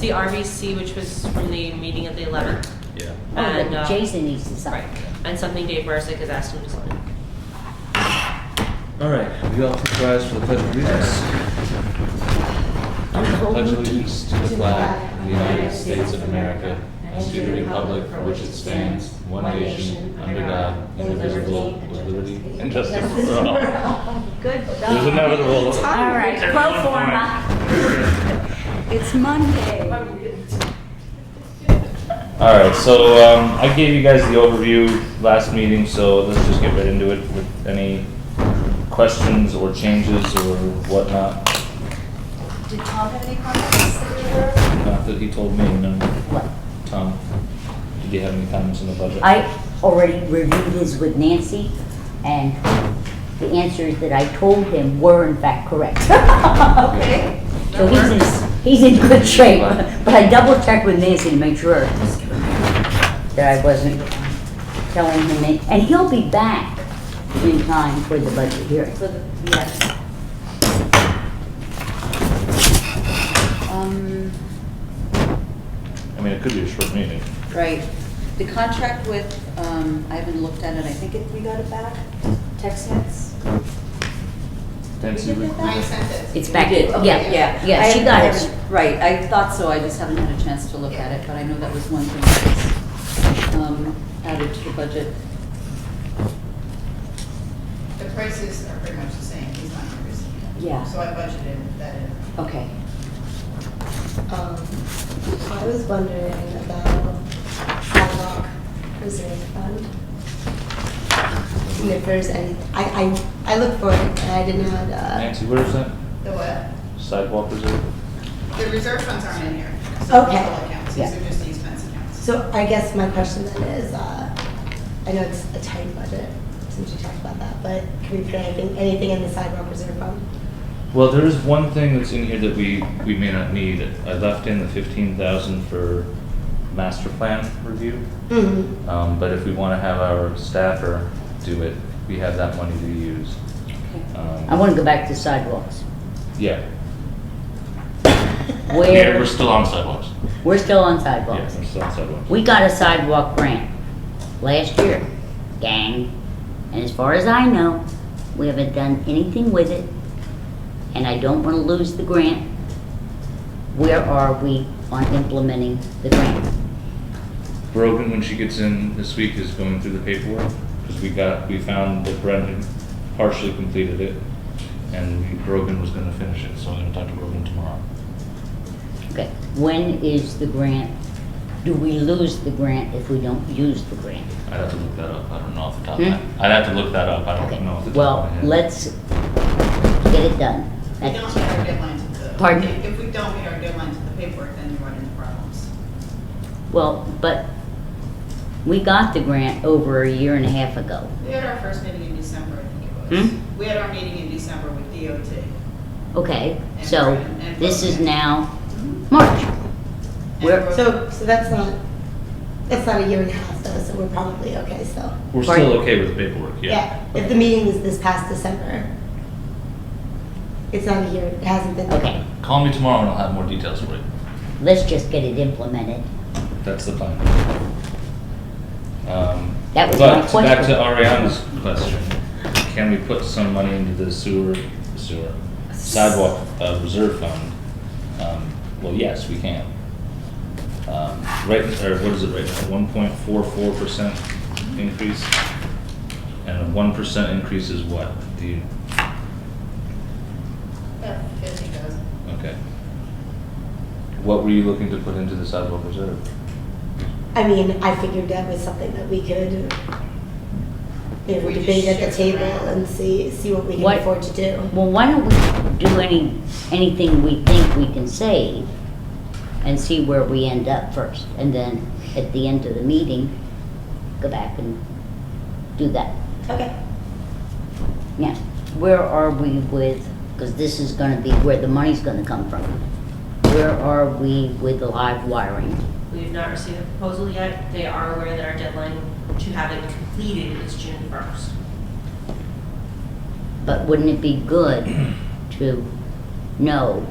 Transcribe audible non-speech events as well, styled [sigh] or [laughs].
the RVC, which was from the meeting of the 11th. Yeah. And, Oh, but uh, Jason needs to Right, sign. and something Dave Bursick has asked him to sign. All right, we all please rise for the pledge of allegiance. Pledge allegiance to the flag of the United States of America and to the republic for which it stands, one nation, under God, indivisible, with liberty and justice for all. Good There's job. inevitable. All right, pro forma. It's Monday. All right, so um, I gave you guys the overview last meeting, so let's just get right into it with any questions or changes or whatnot. Did Tom have any comments that you Not that he told me, no. What? Tom, did you have any comments on the budget? I already reviewed his with Nancy, and the answers that I told him were in fact correct. [laughs] Okay. So he's in, he's in good shape, but I double checked with Nancy to make sure that I wasn't telling him, any- and he'll be back in time for the budget hearing. For the, yes. Um, I mean, it could be a short meeting. right, the contract with, um, I haven't looked at it, I think it, we got it back, text nets? Nancy, we- I It's back, yeah, yeah, I- yeah, she I got it. haven't- Right, I thought so, I just haven't had a chance to look at it, but I know that was one thing that was, um, added to the budget. The prices are pretty much the same, he's not increasing it. Yeah. So I budgeted that in. Okay. Um, I was wondering about sidewalk reserve fund. And if there's any, I, I, I looked for it and I didn't have, uh, Nancy, where is that? The what? Sidewalk reserve? The reserve funds aren't in here. So Okay. they're all accounts, Yeah. these are just the expense accounts. so I guess my question then is, uh, I know it's a tight budget, since you talked about that, but can we put anything, anything in the sidewalk reserve fund? Well, there is one thing that's in here that we, we may not need. I left in the fifteen thousand for master plan review. Mm-hmm. Um, but if we wanna have our staffer do it, we have that money to use. Um, I wanna go back to sidewalks. Yeah. Yeah, Where, we're still on sidewalks. we're still on Yeah, sidewalks. we're still on sidewalks. We got a sidewalk grant last year, gang. And as far as I know, we haven't done anything with it. And I don't wanna lose the grant. Where are we on implementing the grant? Brogan, when she gets in this week, is going through the paperwork, because we got, we found that Brendan partially completed it, and Brogan was gonna finish it, so I'm gonna talk to Brogan tomorrow. Okay, when is the grant? Do we lose the grant if we don't use the grant? I'd have to look that up, I don't know off the top of my, Hmm? I'd have to look that up, I Okay. don't know off the top of my Well, head. let's get it done. If we That's- don't meet our deadline to the. Pardon? if- If we don't meet our deadline to the paperwork, then you run into problems. Well, but we got the grant over a year and a half ago. We had our first meeting in December, I think it was. Hmm? We had our meeting in December with DOT. Okay, so this is now March. and Where- Brogan- So, so that's not, that's not a year and a half though, so we're probably okay still. We're still okay with the paperwork, yeah. If the meeting is this past December, it's not a year, it hasn't been. Okay, Call me tomorrow and I'll have more details for you. let's just get it implemented. That's the plan. Um, That was but my question. Back to Ariana's question, can we put some money into the sewer, sewer sidewalk uh, reserve fund? Um, Well, yes, we can. Um, Right, or what is it right now, one point four four percent increase? And a one percent increase is what? Do you, Yeah, fifty thousand. okay. What were you looking to put into the sidewalk reserve? I mean, I figured that was something that we could, you know, We just debate at the shift table around. and see, see what we can What- afford to do. Well, why don't we do any, anything we think we can save and see where we end up first? And then at the end of the meeting, go back and do that. Okay. Yeah, where are we with, because this is gonna be where the money's gonna come from. Where are we with the live wiring? We have not received a proposal yet. They are aware that our deadline to have it completed is June 1st. But wouldn't it be good to know